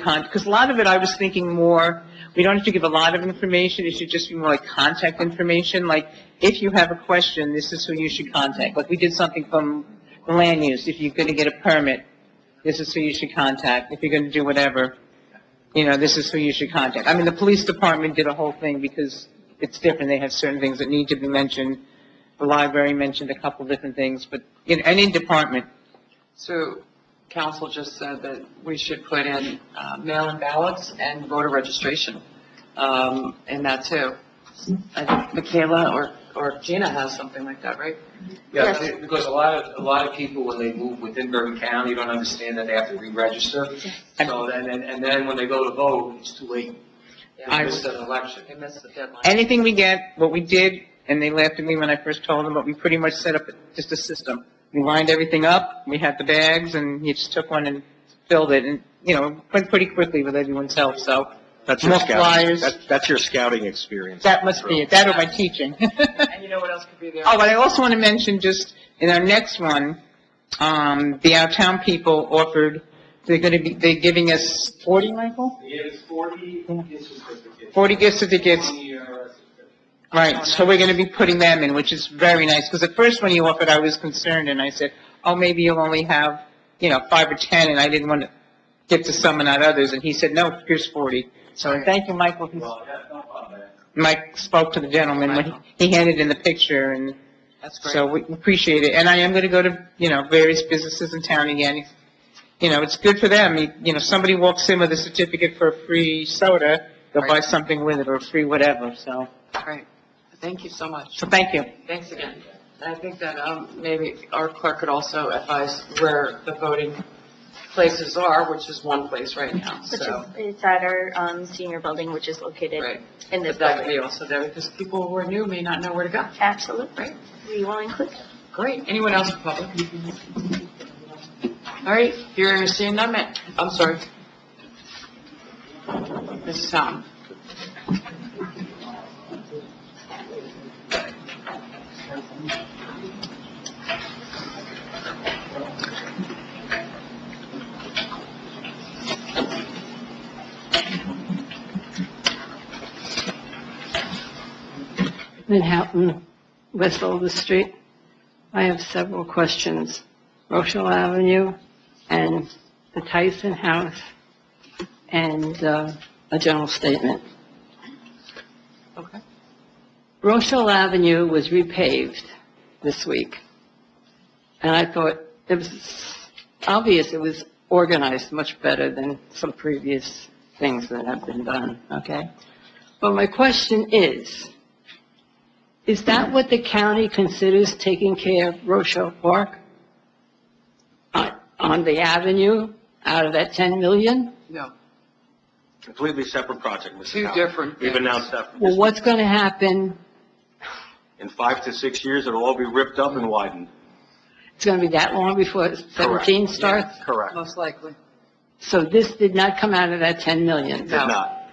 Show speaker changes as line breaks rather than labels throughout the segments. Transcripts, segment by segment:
con, because a lot of it, I was thinking more, we don't have to give a lot of information, it should just be more like contact information, like, if you have a question, this is who you should contact, like, we did something from land use, if you're gonna get a permit, this is who you should contact, if you're gonna do whatever, you know, this is who you should contact. I mean, the police department did a whole thing because it's different, they have certain things that need to be mentioned, the library mentioned a couple different things, but in any department,
So council just said that we should put in uh, mail-in ballots and voter registration um, in that too. I think Michaela or, or Gina has something like that, right?
Yeah,
Yes.
be- because a lot of, a lot of people, when they move within Bergen County, don't understand that they have to re-register. So then, and- and then when they go to vote, it's too late.
Yeah,
They missed an election.
They missed the deadline.
anything we get, what we did, and they laughed at me when I first told them, but we pretty much set up just a system. We lined everything up, we had the bags, and you just took one and filled it, and, you know, went pretty quickly with everyone's help, so
That's your
More
scouting,
flyers.
that's, that's your scouting experience.
that must be it, that or my teaching.
And you know what else could be there?
Oh, but I also want to mention, just in our next one, um, the Our Town people offered, they're going to be, they're giving us 40, Michael?
They gave us forty
Yeah.
gift certificates.
40 gift certificates.
Twenty ERS certificates.
Right, so we're going to be putting them in, which is very nice, because the first one you offered, I was concerned, and I said, oh, maybe you'll only have, you know, five or 10, and I didn't want to get to some and not others, and he said, no, here's 40. So and thank you, Michael. He's-
Well, that's not bad.
Mike spoke to the gentleman when he he handed in the picture, and
That's great.
so we appreciate it. And I am going to go to, you know, various businesses in town again. You know, it's good for them, You- you know, somebody walks in with a certificate for a free soda, they'll buy
Right.
something with it, or a free whatever, so,
Great. Thank you so much.
so thank you.
Thanks again. And I think that um, maybe our clerk could also advise where the voting places are, which is one place right now,
Which is,
so.
it's at our um, senior building, which is located
Right.
in this
But that could
building.
be also there, because people who are new may not know where to go.
Absolutely. We will include that.
Great, anyone else in public? All right, you're seeing none, ma- I'm sorry. Mrs. Houghton.
Manhattan, West Oliver Street. I have several questions. Rochelle Avenue and the Tyson House and uh, a general statement.
Okay.
Rochelle Avenue was repaved this week. And I thought it was obvious it was organized much better than some previous things that have been done, okay? But my question is, is that what the county considers taking care of Rochelle Park? On, on the avenue, out of that 10 million?
No,
Completely separate project, Mrs.
Two
Howard.
different
We've
things.
announced that. from
Well,
this-
what's going to happen?
In five to six years, it'll all be ripped up and widened.
It's going to be that long before
Correct.
17 starts?
Correct.
most likely.
So this did not come out of that 10 million?
Did not.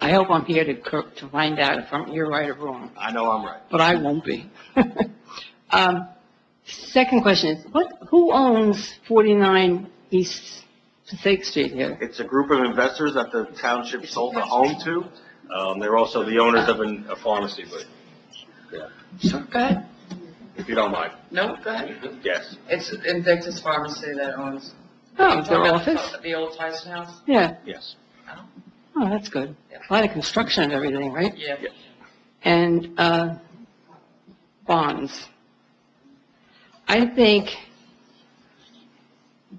I hope I'm here to, cor- to find out if I'm, you're right or wrong,
I know I'm right.
but I won't be. Um, Second question is, what, who owns 49 East Passaic Street here?
It's a group of investors that the township sold the home to. Um, they're also the owners of an- a pharmacy, but
Sure, go ahead.
if you don't mind,
No, go ahead.
yes.
It's Invictus Pharmacy that owns.
Oh, their
Talking about
office?
The old Tyson House?
Yeah,
Yes.
oh, that's good. A lot of construction and everything, right?
Yeah.
and uh, bonds. I think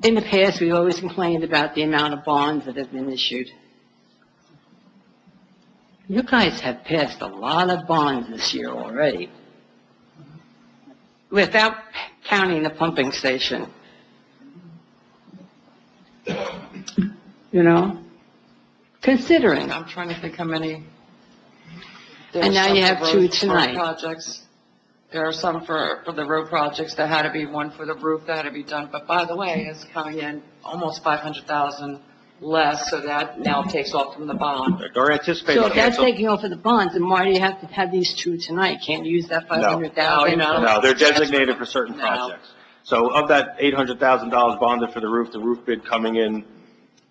in the past, we always complained about the amount of bonds that have been issued. You guys have passed a lot of bonds this year already, without counting the pumping station. You know, considering
I'm trying to think how many.
And now you
There are
have
some
two
road- road
tonight.
Projects, there are some for, for the road projects that had to be, one for the roof that had to be done, but by the way, it's coming in almost five hundred thousand less, so that now takes off from the bond.
Or anticipate
So if that's
canceling.
taking off of the bonds, then why do you have to have these two tonight? Can't you use that five hundred
No,
thousand?
no.
No, they're designated for certain
No.
projects. So of that $800,000 bonded for the roof, the roof bid coming in